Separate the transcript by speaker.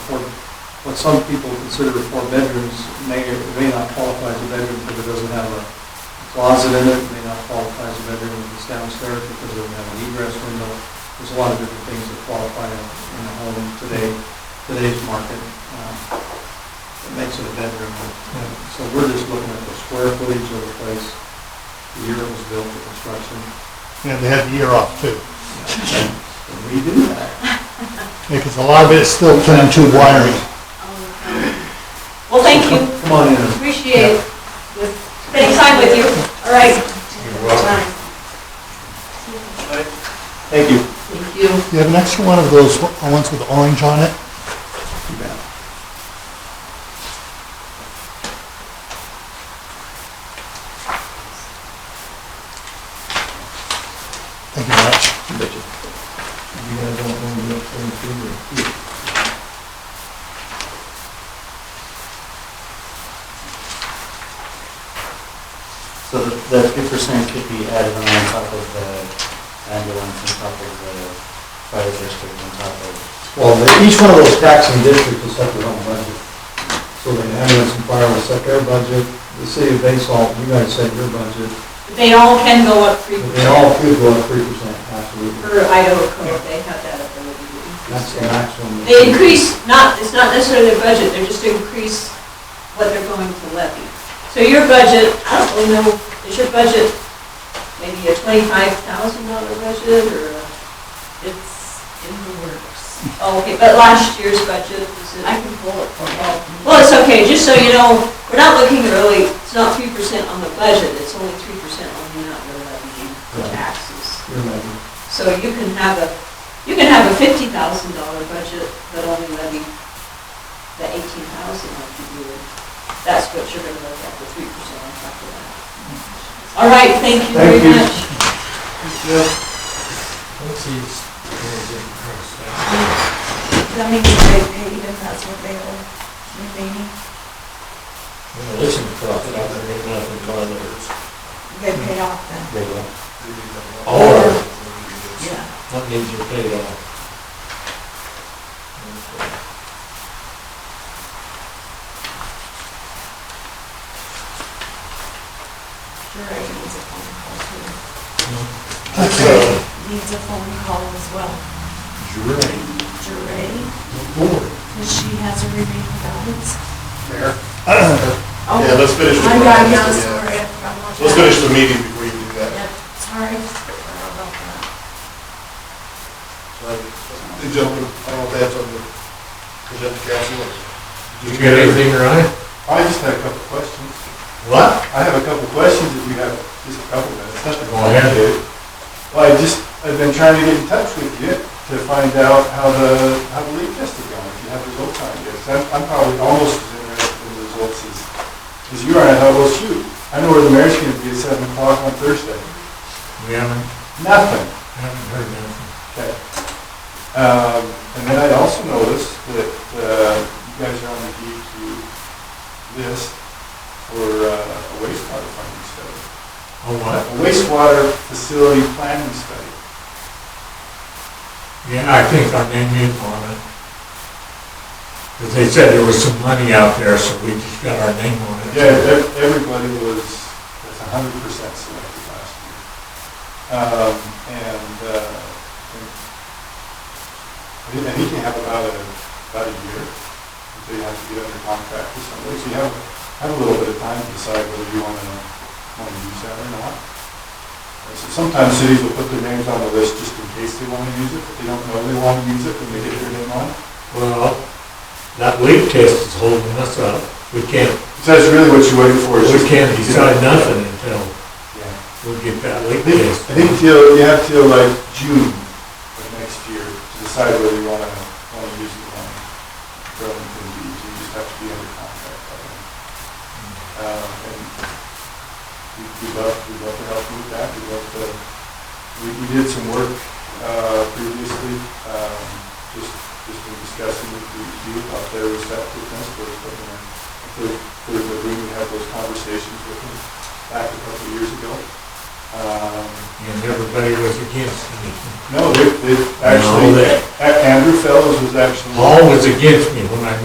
Speaker 1: what some people consider four bedrooms may, may not qualify as a bedroom because it doesn't have a closet in it, It may not qualify as a bedroom if it's downstairs because it doesn't have an egress window. There's a lot of different things that qualify in in a home today, today's market. uh, That makes it a bedroom. So we're just looking at the square footage of the place, the year it was built, the construction,
Speaker 2: Yeah, they had the year off too,
Speaker 1: and we do that.
Speaker 2: because a lot of it's still turned to wiring.
Speaker 3: Well, thank you,
Speaker 1: Come on in.
Speaker 3: appreciate it, with spending time with you, all right.
Speaker 1: You're welcome. Thank you.
Speaker 3: Thank you.
Speaker 2: You have an extra one of those ones with orange on it?
Speaker 1: You bet.
Speaker 2: Thank you very much.
Speaker 1: You guys don't want to look for
Speaker 4: So the- the three percent could be added on top of the ambulance, on top of the fire district, on top of,
Speaker 5: Well, they- each one of those taxing districts will set their own budget. So the ambulance and fire will set their budget, the city of Basalt, you guys set your budget,
Speaker 3: They all can go up three
Speaker 5: but they all
Speaker 3: percent
Speaker 5: could go up three percent, absolutely.
Speaker 3: per Idaho code, they have that ability to
Speaker 5: That's
Speaker 3: increase
Speaker 5: the
Speaker 3: their.
Speaker 5: maximum.
Speaker 3: They increase, not, it's not necessarily their budget, they're just to increase what they're going to levy. So your budget, I don't know, is your budget maybe a twenty-five thousand dollar budget, or a- it's in the works? Oh, Okay, but last year's budget, is it- I can pull it for you. Well, it's okay, just so you know, we're not looking really, it's not three percent on the budget, it's only three percent on the amount we're levying for
Speaker 5: Right.
Speaker 3: taxes.
Speaker 5: Your levy.
Speaker 3: So you can have a, you can have a fifty thousand dollar budget, but only levy the eighteen thousand like you do. That's what you're gonna look at, the three percent on top of that. All right, thank you very
Speaker 5: Thank you.
Speaker 3: much.
Speaker 6: That means that they paid if that's what they owe, remaining,
Speaker 4: listen to profit, I'm gonna make nothing but others.
Speaker 6: they paid off then.
Speaker 4: They will.
Speaker 6: Or-
Speaker 4: Or,
Speaker 6: Yeah.
Speaker 4: what needs your pay off?
Speaker 6: Sure, it needs a phone call too.
Speaker 2: Okay.
Speaker 6: Needs a phone call as well. Jure. Because she has a remaining balance.
Speaker 1: Mayor?
Speaker 6: Oh,
Speaker 7: Yeah, let's finish the
Speaker 6: I'm right
Speaker 7: process, yeah.
Speaker 6: now, sorry. I forgot
Speaker 7: Let's
Speaker 6: about
Speaker 7: finish
Speaker 6: that.
Speaker 7: the meeting before you do that.
Speaker 6: Yep, sorry. Forgot about that.
Speaker 7: Hey, gentlemen, I don't know if that's on the agenda council.
Speaker 8: You got anything, Ryan?
Speaker 7: I just had a couple questions.
Speaker 8: What?
Speaker 7: I have a couple questions if you have just a couple minutes. nothing.
Speaker 8: Go ahead, dude.
Speaker 7: Well, I just, I've been trying to get in touch with you to find out how the, how the leak test is going, if you have results on it. Yes, I'm, I'm probably almost as interested in the results as, as you are, and how those shoot. I know where the mayor's gonna be at seven o'clock on Thursday.
Speaker 8: We haven't,
Speaker 7: Nothing.
Speaker 8: haven't heard nothing.
Speaker 7: Okay. Um, And then I also noticed that uh, you guys are on the DEQ list for uh, a wastewater planning study.
Speaker 8: Oh,
Speaker 7: A
Speaker 8: what?
Speaker 7: wastewater facility planning study.
Speaker 8: Yeah, I think our name is on it. Because they said there was some money out there, so we just got our name on it.
Speaker 7: Yeah, ev- everybody was, was a hundred percent selected last year. Um, And uh, I think- I think you have about a, about a year until you have to get under contract or something. So you have, have a little bit of time to decide whether you want to, want to use that or not. And so Sometimes cities will put their names on the list just in case they want to use it, but they don't know they want to use it when they get their name on it.
Speaker 8: Well, that leak test is holding us up. We can't,
Speaker 7: So that's really what you're waiting for. is
Speaker 8: we
Speaker 7: just-
Speaker 8: can't decide nothing until
Speaker 7: Yeah.
Speaker 8: we get that
Speaker 7: I
Speaker 8: leak
Speaker 7: think-
Speaker 8: test.
Speaker 7: I think till, you have till like June of next year to decide whether you wanna, wanna use the money for Ellington Beach, E you just have to be under contract by then. Um, and we, we love, we love to help you with that, we love to, we, we did some work, uh, previously, um, just, just in discussing with DEQ about their receptive transport, but, you know, they're, they're in the room, we had those conversations with them back a couple of years ago. Um,
Speaker 8: And everybody was against me.
Speaker 7: no, they, they actually,
Speaker 8: No, they- Oh,
Speaker 7: A- Andrew Fellows was actually,
Speaker 8: Paul was against me